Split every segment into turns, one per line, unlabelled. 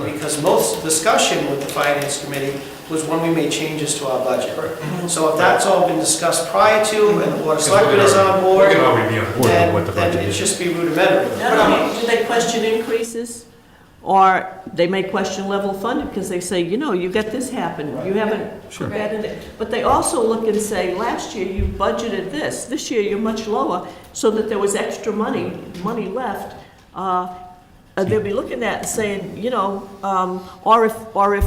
because most discussion with the finance committee was when we made changes to our budget. Mm-hmm. So if that's all been discussed prior to, and the board of selectmen is on board,
We can all review on board what
then,
the
then
budget
it
is.
just be rudimentary.
Not only do they question increases, or they may question level funding, because they say, you know, you got this happen, you haven't
Sure.
added it. But they also look and say, last year you budgeted this, this year you're much lower, so that there was extra money, money left. Uh, uh, They'll be looking at and saying, you know, um, or if, or if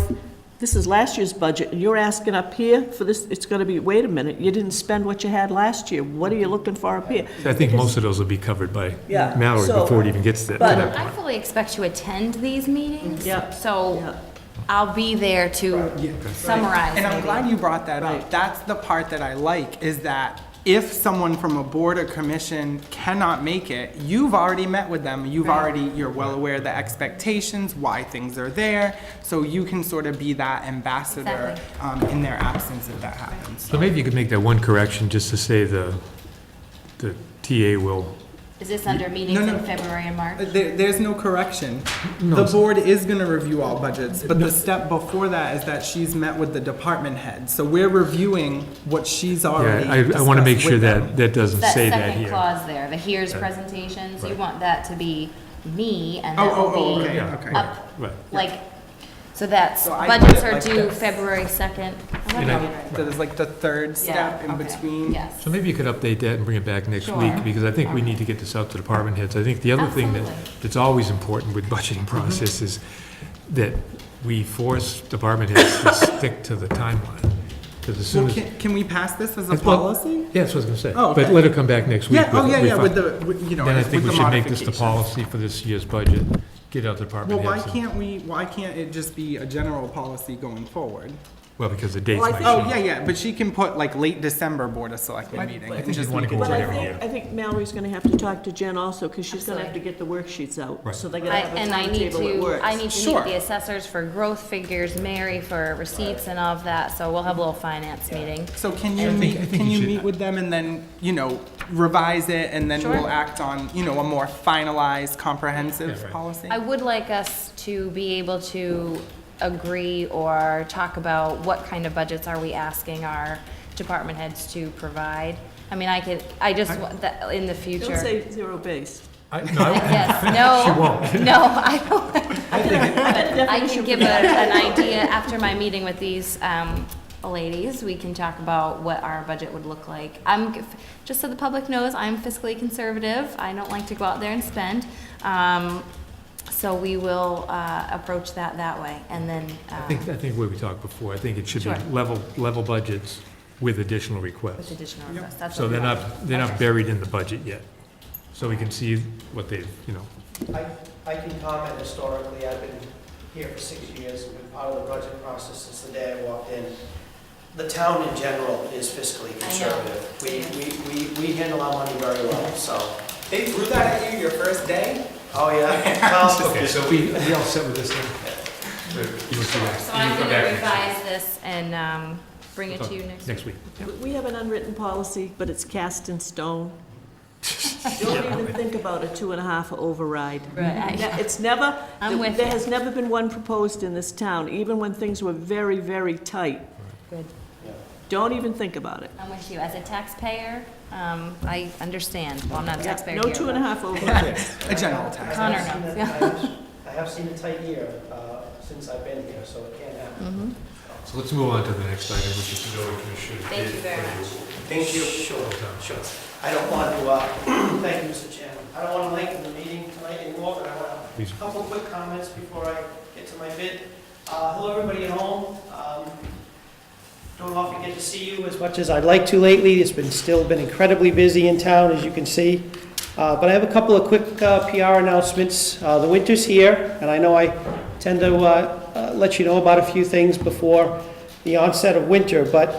this is last year's budget, and you're asking up here for this, it's gonna be, wait a minute, you didn't spend what you had last year, what are you looking for up here?
I think most of those will be covered by
Yeah,
Mallory
so-
before it even gets to to
but-
that
I
point.
fully expect to attend these meetings.
Yep.
So
Yeah.
I'll be there to summarize.
And I'm
maybe.
glad you brought that up. That's the part that I like, is that if someone from a board or commission cannot make it, you've already met with them. You've already, you're well aware of the expectations, why things are there, so you can sort of be that ambassador
Exactly.
um, in their absence if that happens.
So maybe you could make that one correction, just to say the, the TA will,
Is this under meetings
no.
in February and March?
Uh, There, there's no correction. The board is gonna review all budgets, but the step before that is that she's met with the department head. So we're reviewing what she's already
yeah, I, I want to make
discussed
sure
with them.
that, that doesn't
That
say that
second
here. Uh,
clause there, the here's presentations, you
Right.
want that to be me and
Oh,
that
oh, oh,
will be
okay,
Yeah,
okay.
right,
up,
right.
like, so that's,
So I
budgets
put it
are
like
due
this.
February 2nd. I
And
wanna
I-
be right.
That is like the third
Yeah,
step in
okay.
between.
Yes.
So maybe you could update that and bring it back next
Sure.
week, because I think we need to get this out to department heads. I think the other thing that,
Absolutely. Mm-hmm.
that's always important with budgeting process is that we force department heads to stick to the timeline, because as soon
Well,
as.
can, can we pass this as a
Well,
policy?
Yeah, that's what I was gonna say.
Oh,
But
okay.
let her come back next week.
Yeah, oh,
with-
yeah,
with
yeah, with
fin-
the, with, you know,
Then I
with the
think we should make this the
modifications.
policy for this year's budget, get out the
Well,
department
why
heads. and-
can't we, why can't it just be a general policy going forward?
Well, because the dates
Well, I
might
Oh,
change.
yeah, yeah, but she can put like late December Board of Selectmen meeting.
I
and
think you'd
just
wanna
make it
go
But
over
I
Whatever,
think, I think Mallory's gonna have to talk to Jen also, because she's gonna have to get the worksheets
Right.
out, so they gotta
I-
have a
And I need
timetable at
to,
work.
I need to
Sure.
meet the assessors for growth figures, Mary for receipts and all of that, so we'll have a little finance meeting.
So can you
think- I
meet,
think
can
you
you
should-
meet with them and then, you know, revise it and then
Sure.
we'll act on, you know, a more finalized, comprehensive
Yeah, right.
policy?
I would like us to be able to agree or talk about what kind of budgets are we asking our department heads to provide. I mean, I could, I just, want that in the
Don't
future.
say zero base.
Oh,
I- no, I-
Yes, no.
She won't.
No, I don't. I
I
can give a- an idea, after my meeting with these um, ladies, we can talk about what our budget would look like. I'm, g- just so the public knows, I'm fiscally conservative, I don't like to go out there and spend. Um, So we will uh, approach that that way, and then, uh,
I think, I think where we talked before, I think it should be
Sure.
level, level budgets with additional
with
requests.
additional requests, that's
So
what we
they're
want.
not, they're not
Okay.
buried in the budget yet. So we can see what they've, you know,
I, I can comment historically, I've been here for six years, and been part of the budget process since the day I walked in. The town in general is fiscally conservative. We, we, we, we handle our money very well, so,
They threw that at you your first day?
oh, yeah.
Okay, so we, we all set with this then? You will see that.
So
You can
I'm
come back
going to
next week.
revise this and um, bring it to you next week.
Next week.
We have an unwritten policy, but it's cast in stone. Don't even think about a two and a half override.
Right.
Ne- It's never,
I'm with
there
you.
has never been one proposed in this town, even when things were very, very tight.
Good.
Don't even think about it.
I'm with you, as a taxpayer, um, I understand, well, I'm not a
Yeah,
taxpayer
No
here.
two and a
but-
half override.
A general tax.
I have
Connor
seen
knows,
a- I have- I have seen a tight year, uh, since I've been here, so it can't
Mm-hmm.
happen.
So let's move on to the next item, which is the building commissioner.
Thank you very much.
Thank you. Sure, sure. I don't want to, uh, thank you, Mr. Chairman. I don't want to lengthen the meeting tonight anymore, but I want to
Please.
A Couple quick comments before I get to my bid. Uh, Hello, everybody at home. Um, Don't often get to see you as much as I'd like to lately. It's been, still been incredibly busy in town, as you can see. Uh, But I have a couple of quick uh, PR announcements. Uh, The winter's here, and I know I tend to uh, uh, let you know about a few things before the onset of winter, but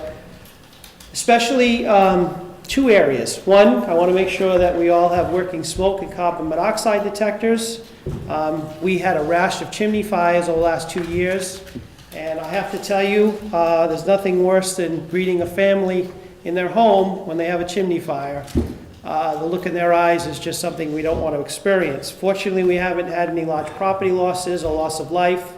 especially um, two areas. One, I want to make sure that we all have working smoke and carbon monoxide detectors. Um, We had a rash of chimney fires over the last two years, and I have to tell you, uh, there's nothing worse than greeting a family in their home when they have a chimney fire. Uh, The look in their eyes is just something we don't want to experience. Fortunately, we haven't had any large property losses or loss of life,